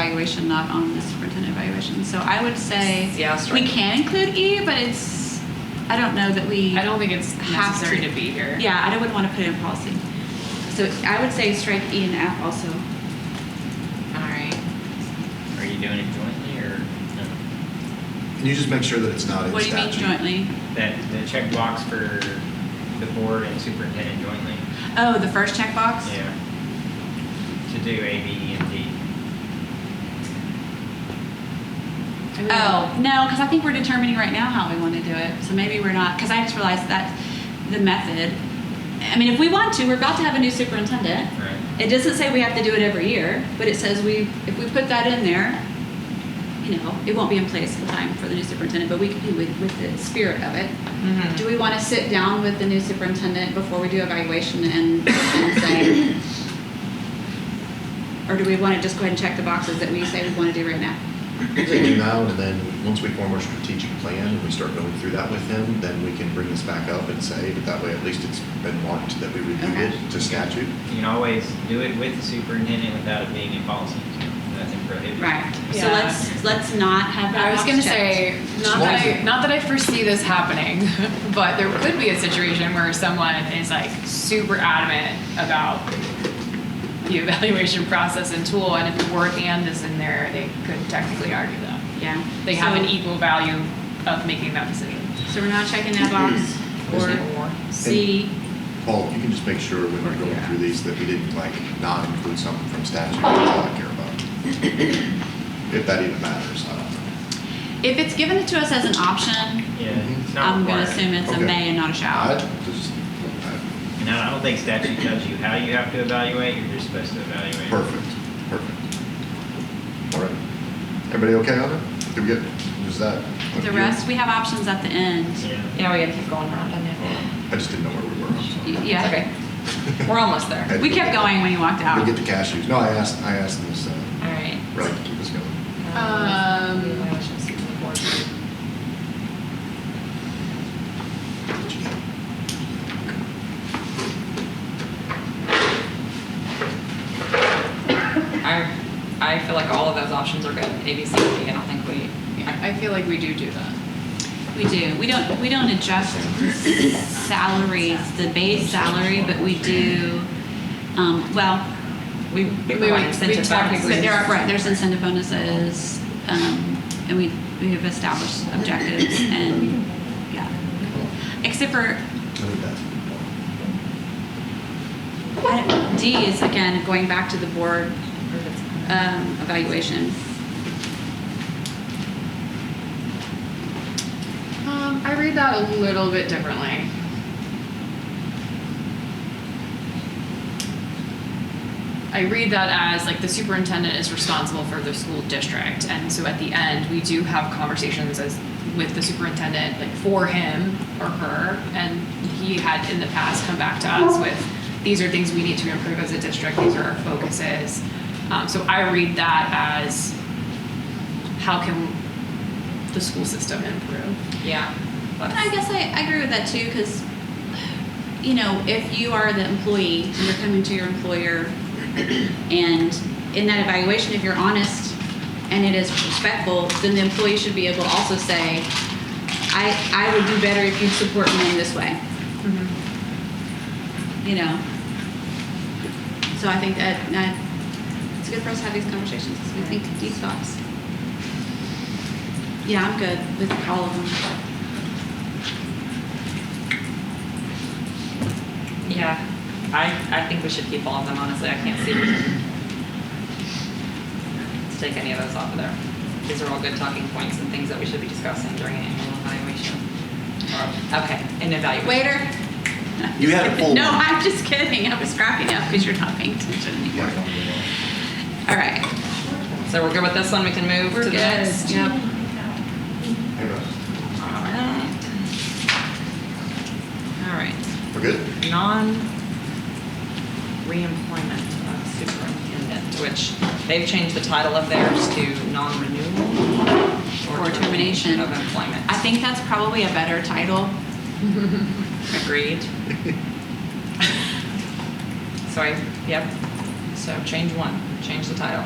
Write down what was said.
evaluation, not on the superintendent evaluation. So I would say Yeah, I'll strike we it. can include E, but it's, I don't know that we. I don't think it's Have necessary to. to be here. Yeah, I wouldn't want to put it in policy. So I would say strike E and F also. All right. Are you doing it jointly or no? Can you just make sure that it's not in What do you mean statute? jointly? That, the checkbox for the board and superintendent jointly, Oh, the first checkbox? yeah. To do A, B, E, and D. Oh, no, because I think we're determining right now how we want to do it. So maybe we're not, because I just realized that the method, I mean, if we want to, we're about to have a new superintendent. Right. It doesn't say we have to do it every year, but it says we, if we put that in there, you know, it won't be in place in time for the new superintendent, but we can do with, with the spirit of it. Mhm. Do we want to sit down with the new superintendent before we do evaluation and, and say, or do we want to just go ahead and check the boxes that we say we want to do right now? We can do now, and then, once we form our strategic plan and we start going through that with him, then we can bring this back up and say, but that way at least it's been marked that we reviewed Okay. it to statute. You can always do it with the superintendent without it being in policy. Nothing prohibited. Right. So Yeah. let's, let's not have that I was box gonna checked. say, not that I, not that I foresee this happening, but there could be a situation where someone is like super adamant about the evaluation process and tool, and if the word "and" is in there, they could technically argue that Yeah. they have an So- equal value of making that decision. So we're not checking that box or Or C. Paul, you can just make sure when we're going Yeah. through these that we didn't like not include something from statute that we don't care about. If that even matters, I don't know. If it's given to us as an option, Yeah, it's not I'm gonna required. assume it's a Okay. may and not a I shall. just, I- And I don't think statute tells you how you have to evaluate, you're just supposed to evaluate. perfect, perfect. All right. Everybody okay on it? Did we get, was that? The rest, we have options at the end. Yeah. Yeah, we gotta keep going around on that. I just didn't know where we were. I'm sorry. Y- It's Yeah. okay. We're almost there. We kept going when you walked We out. get the cashews. No, I asked, I asked them this, uh, All right. really to keep us going. Um, What you got? I, I feel like all of those options are good, A, B, C, and D, and I think we, yeah, I feel like we do do that. We do. We don't, we don't adjust salaries, the base salary, but we do, um, well, we, We we would- want incentive we talked- bonuses. But there are, right, there's incentive bonuses, um, and we, we have established objectives and, yeah. Except for I think that's I- D is again, going back to the board, um, evaluation. Um, I read that a little bit differently. I read that as like the superintendent is responsible for the school district, and so at the end we do have conversations as with the superintendent, like for him or her, and he had in the past come back to us with these are things we need to improve as a district, these are our focuses. Um, so I read that as how can the school system improve? Yeah. I guess I, I agree with that too, because, you know, if you are the employee, and you're coming to your employer, and in that evaluation, if you're honest and it is respectful, then the employee should be able to also say, I, I would do better if you support me in this way. You know? So I think that, that, it's good for us to have these conversations, 'cause we think deep thoughts. Yeah, I'm good with all of them. Yeah. I, I think we should keep all of them, honestly. I can't see a reason to take any of those off of there. These are all good talking points and things that we should be discussing during an annual evaluation. Or- Okay, an evaluation. Waiter. You had a full No, one. I'm just kidding. I was cracking up because you're not paying attention anymore. All right. So we're good with this one? We can move We're to the good. next? Yep. Hey, Russ. All right. All right. We're good? Non reemployment of uh, superintendent, which they've changed the title of theirs to non renewal Or termination. of employment. I think that's probably a better title. Agreed. So I, yep, so change one, change the title.